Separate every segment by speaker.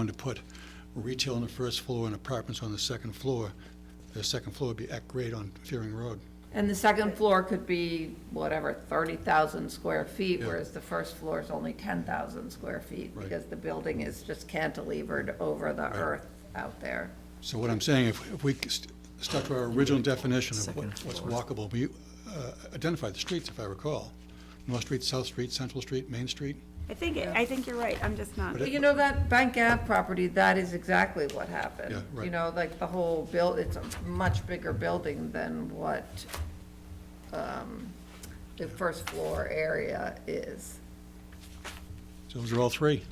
Speaker 1: going to put retail on the first floor and apartments on the second floor, the second floor would be at grade on Fearing Road.
Speaker 2: And the second floor could be whatever, 30,000 square feet, whereas the first floor is only 10,000 square feet
Speaker 1: Right.
Speaker 2: because the building is just cantilevered over the earth out there.
Speaker 1: So what I'm saying, if if we st- stuck to our original definition of what- what's walkable, we uh, identified the streets, if I recall. North Street, South Street, Central Street, Main Street.
Speaker 3: I think, it- I think you're right, I'm just not,
Speaker 1: But it-
Speaker 2: You know, that Bank Ave property, that is exactly what happened.
Speaker 1: Yeah, right.
Speaker 2: You know, like the whole build, it's a much bigger building than what um, the first floor area is.
Speaker 1: So those are all three.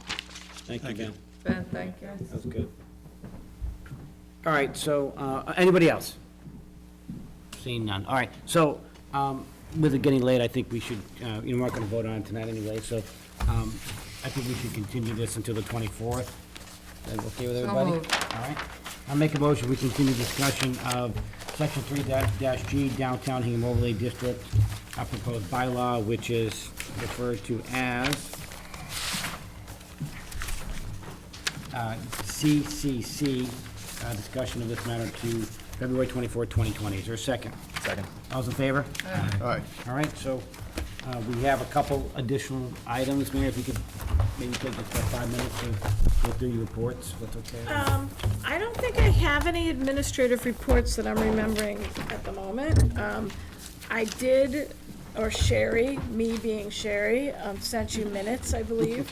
Speaker 4: Thank you, Ben.
Speaker 2: Ben, thank you.
Speaker 4: That was good. All right, so, uh, anybody else? Seeing none. All right, so, um, with it getting late, I think we should, uh, you know, we're not gonna vote on it tonight anyway, so, um, I think we should continue this until the twenty-fourth. Is that okay with everybody?
Speaker 2: moved.
Speaker 4: All right. I'll make a motion, we continue discussion of section three dash, dash G downtown Hingham overlay district, our proposed bylaw, which is referred to as uh, CCC, uh, discussion of this matter to February 24, 2020. Is there a second?
Speaker 5: Second.
Speaker 4: All's in favor?
Speaker 5: All right.
Speaker 4: All right, so uh, we have a couple additional items, Mayor, if you could maybe take just about five minutes to go through your reports, if that's okay?
Speaker 6: Um, I don't think I have any administrative reports that I'm remembering at the moment. Um, I did, or Sherry, me being Sherry, um, sent you minutes, I believe.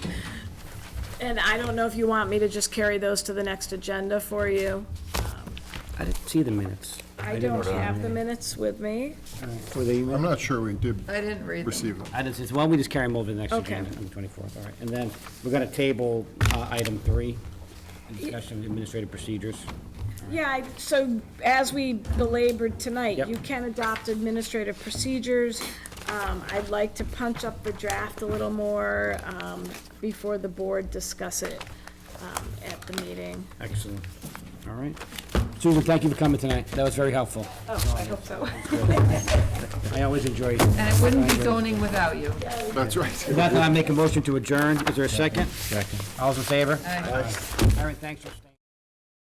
Speaker 6: And I don't know if you want me to just carry those to the next agenda for you.
Speaker 4: I didn't see the minutes.
Speaker 6: I don't have the minutes with me.
Speaker 4: Were they
Speaker 5: I'm not sure we did
Speaker 2: I didn't read them.
Speaker 5: receive them.
Speaker 4: I didn't see, so why don't we just carry them over to the next
Speaker 6: Okay.
Speaker 4: agenda on the 24th, all right? And then we're going to table uh, item three, discussion of administrative procedures.
Speaker 6: Yeah, I- so as we belabored tonight,
Speaker 4: Yep.
Speaker 6: you can adopt administrative procedures. Um, I'd like to punch up the draft a little more um, before the board discuss it um, at the meeting.
Speaker 4: Excellent. All right. Susan, thank you for coming tonight. That was very helpful.
Speaker 6: Oh, I hope so.
Speaker 4: I always enjoy.
Speaker 2: And it wouldn't be zoning without you.
Speaker 5: That's right.
Speaker 4: With that, I make a motion to adjourn. Is there a second? Second. All's in favor? Aye. All right, thanks for staying.